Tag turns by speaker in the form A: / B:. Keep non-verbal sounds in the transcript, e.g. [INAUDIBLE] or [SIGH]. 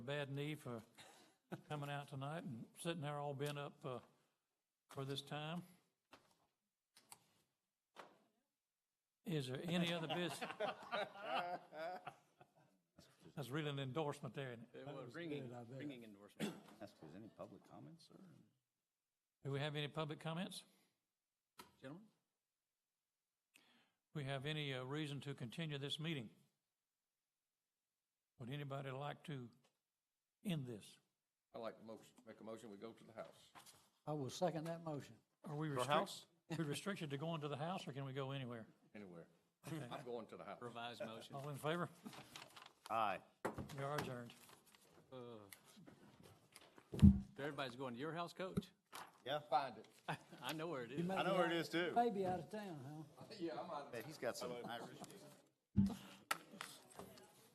A: bad knee for coming out tonight and sitting there all bent up uh, for this time. Is there any other business? That's really an endorsement there, isn't it?
B: Ringing, ringing endorsement.
C: Ask if there's any public comments, sir?
A: Do we have any public comments?
B: Gentlemen?
A: We have any uh, reason to continue this meeting? Would anybody like to end this?
D: I'd like to motion- make a motion, we go to the House.
E: I will second that motion.
A: Are we restricted?
C: house?
A: We restricted to going to the house, or can we go anywhere?
D: Anywhere. I'm going to the House.
B: Revised motion.
A: All in favor?
C: Aye.
A: We are adjourned.
B: Everybody's going to your house, coach?
C: Yeah,
D: Find it.
B: [LAUGHS] I know where it is.
C: I know where it is too.
E: Maybe out of town, huh?
D: Yeah, I'm out of
C: Bet he's got some Irish.